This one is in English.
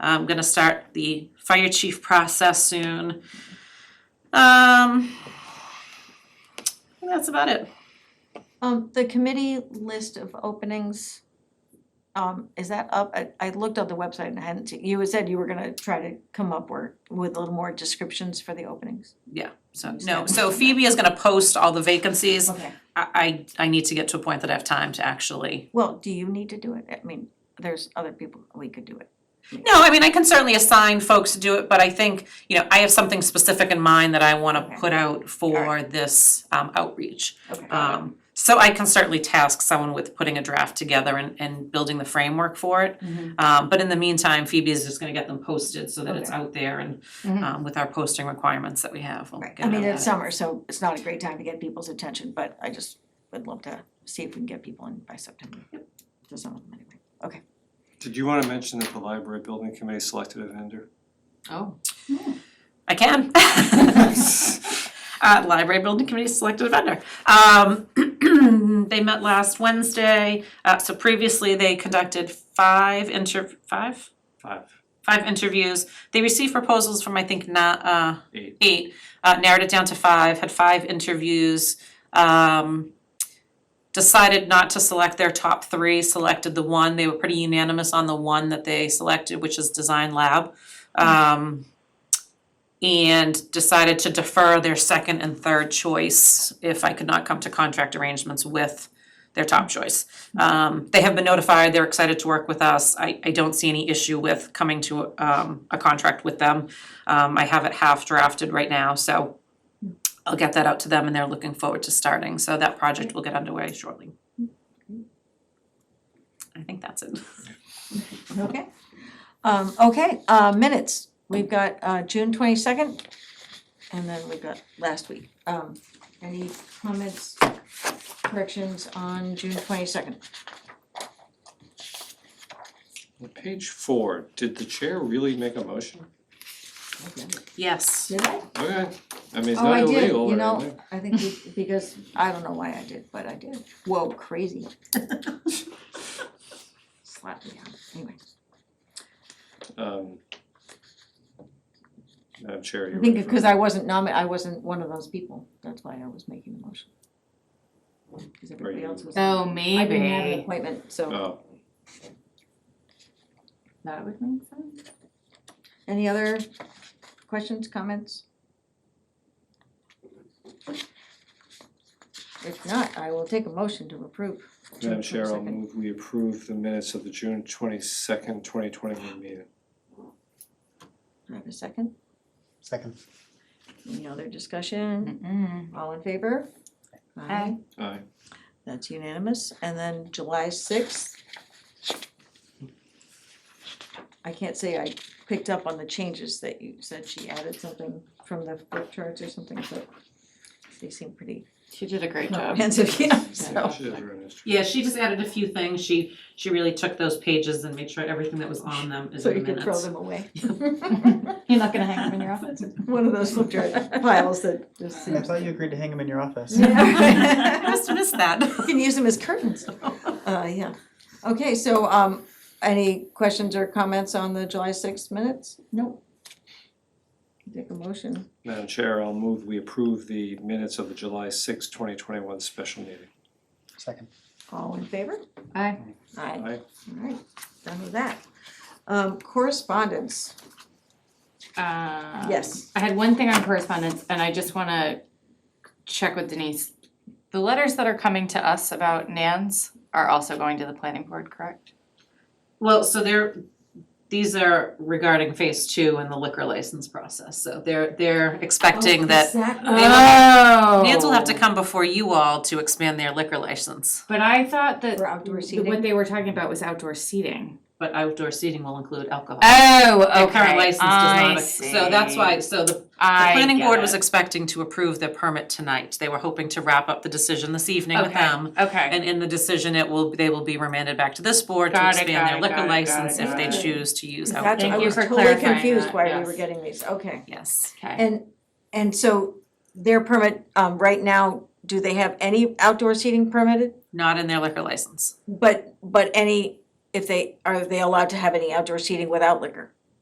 I'm gonna start the fire chief process soon. Um, I think that's about it. Um, the committee list of openings, um, is that up? I, I looked on the website and I hadn't, seen- you had said you were gonna try to come up or, with a little more descriptions for the openings. Yeah, so, no, so Phoebe is gonna post all the vacancies. Okay. I, I, I need to get to a point that I have time to actually. Well, do you need to do it? I mean, there's other people, we could do it. No, I mean, I can certainly assign folks to do it, but I think, you know, I have something specific in mind that I wanna Okay. put out for Alright. this um, outreach. Okay. Um, so I can certainly task someone with putting a draft together and, and building the framework for it. Mhm. Um, but in the meantime, Phoebe is just gonna get them posted so that it's Okay. out there and, Mhm. um, with our posting requirements that we have, we'll Right, get I it mean, out it's there. summer, so it's not a great time to get people's attention, but I just would love to see if we can get people in by September. To some of them anyway. Okay. Did you wanna mention that the library building committee selected a vendor? Oh, I can. Uh, library building committee selected a vendor. Um, they met last Wednesday, uh, so previously they conducted five inter, five? Five, Five interviews. They received proposals from, I think, not, uh, eight. eight, uh, narrowed it down to five, had five interviews, um, decided not to select their top three, selected the one, they were pretty unanimous on the one that they selected, which is Design Lab. Um, and decided to defer their second and third choice if I could not come to contract arrangements with their top choice. Um, they have been notified, they're excited to work with us, I, I don't see any issue with coming to, um, a contract with them. Um, I have it half drafted right now, so I'll get that out to them and they're looking forward to starting, so that project will get underway shortly. I think that's it. Okay. Um, okay, uh, minutes, we've got, uh, June twenty-second, and then we've got last week. Um, any comments, corrections on June twenty-second? On Page four, did the chair really make a motion? Yes. Did I? Okay, I mean, it's Oh, not I did, illegal you or know, anything. I think be- because, I don't know why I did, but I did. Whoa, crazy. Slapped me out, anyway. Um, Madam Chair, I you're think ready for because I wasn't nomi- I wasn't one of those people, that's why I was making the motion. Cause everybody you- else was. oh, I didn't have an maybe. appointment, so. Oh, That would make sense. Any other questions, comments? If not, I will take a motion to approve. June Madam Chair, I'll 22nd. move we approve the minutes of the June twenty-second, twenty twenty-one meeting. Do I have a second? Second. Any other discussion? Mm-mm. All in favor? Aye. Aye. That's unanimous, and then July sixth. I can't say I picked up on the changes that you said she added something from the flip charts or something, but they seem pretty She did a great job. comprehensive, yeah, Yeah, so. she does her own history. Yeah, she just added a few things, she, she really took those pages and made sure everything that was on them is So in the you could minutes. throw them away, You're not gonna hang them in your office? one of those flip chart piles that just I seems. thought you agreed to hang him in your office. I must have missed that. You can use them as curtains, uh, yeah. Okay, so, um, any questions or comments on the July sixth minutes? Nope. Take a motion. Madam Chair, I'll move we approve the minutes of the July sixth, twenty twenty-one special meeting. Second. All in favor? Aye. Aye. Aye. Alright, done with that. Um, correspondence, Uh, yes. I had one thing on correspondence, and I just wanna check with Denise. The letters that are coming to us about Nans are also going to the planning board, correct? Well, so they're, these are regarding phase two and the liquor license process, so they're, they're Oh, expecting that Oh. Nance will have to come before you all to expand their liquor license, But I thought that For outdoor th- what seating? they were talking about was outdoor seating. but outdoor seating will include alcohol. Oh, Their current license I does not, so that's see. why, so the, the I planning get board it. was expecting to approve their permit tonight. They were hoping to wrap up the decision this evening with Okay, them. Okay, And in the decision, it will, they will be remanded back to this board to Got it, expand got their it, liquor got it, got license it, if they got it. choose to use That's- alcohol. I Thank you was for totally clarifying confused that, why we yes. were getting these, okay. Yes. okay. And, and so their permit, um, right now, do they have any outdoor seating permitted? Not in their liquor license. But, but any if they, are they allowed to have any outdoor seating without liquor?